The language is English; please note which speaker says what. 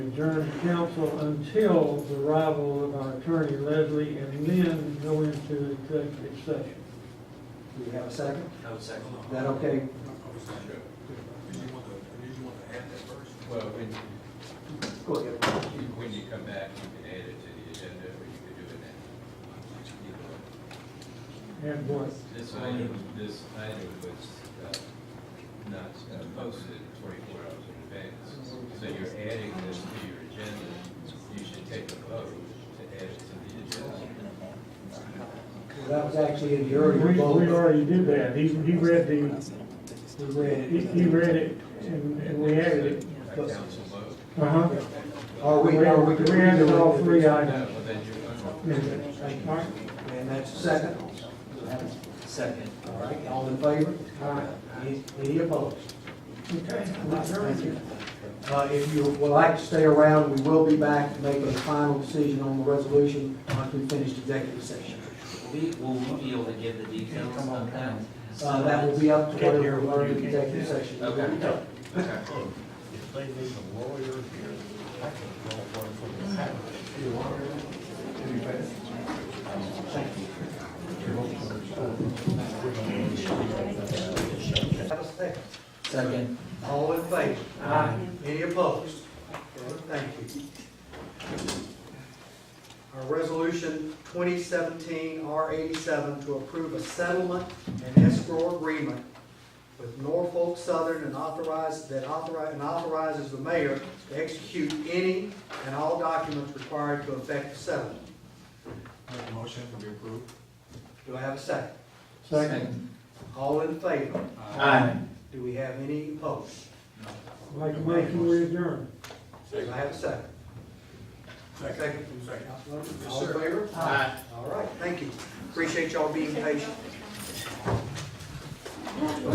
Speaker 1: adjourn the council until the arrival of our attorney Leslie and then go into executive session.
Speaker 2: Do we have a second?
Speaker 3: I would second.
Speaker 2: Is that okay?
Speaker 4: Well, when,
Speaker 2: Go ahead.
Speaker 4: when you come back, you can add it to the agenda, but you could do it now.
Speaker 1: And what?
Speaker 4: This item, this item was uh, not posted twenty-four hours in advance. So you're adding this to your agenda, you should take a vote to add it to the agenda.
Speaker 2: Well, That was actually in the
Speaker 1: We,
Speaker 2: earlier
Speaker 1: we
Speaker 2: vote.
Speaker 1: already did that. He, he read the,
Speaker 2: We read
Speaker 1: he,
Speaker 2: it.
Speaker 1: he read it and, and we added it.
Speaker 4: A council vote.
Speaker 1: Uh-huh.
Speaker 2: Are we, are we?
Speaker 1: We added all three
Speaker 4: No,
Speaker 1: items.
Speaker 4: well, then you're.
Speaker 2: Thank you. And that's a second. Do we have a-
Speaker 3: Second.
Speaker 2: All right, all in favor? Any- Any opposed?
Speaker 1: Okay.
Speaker 2: Thank you. Uh, if you would like to stay around, we will be back to make a final decision on the resolution once we finish executive session.
Speaker 3: We, will we be able to give the details of that?
Speaker 2: Uh, that will be up to whatever we learn in executive session.
Speaker 3: Okay.
Speaker 5: If they need a lawyer here, I can call one from the house.
Speaker 2: Have a second.
Speaker 3: Second.
Speaker 2: All in favor? Aye. Any opposed? Thank you. Our resolution twenty seventeen R eighty-seven to approve a settlement and escrow agreement with Norfolk Southern and authorize, that authorize, and authorizes the mayor to execute any and all documents required to effect the settlement.
Speaker 5: Make a motion to be approved.
Speaker 2: Do I have a second?
Speaker 1: Second.
Speaker 2: All in favor?
Speaker 3: Aye.
Speaker 2: Do we have any opposed?
Speaker 1: I'd Like, to make you adjourn.
Speaker 2: Do I have a second? Second. Councilman, all in favor?
Speaker 3: Aye.
Speaker 2: All right, thank you. Appreciate y'all being patient.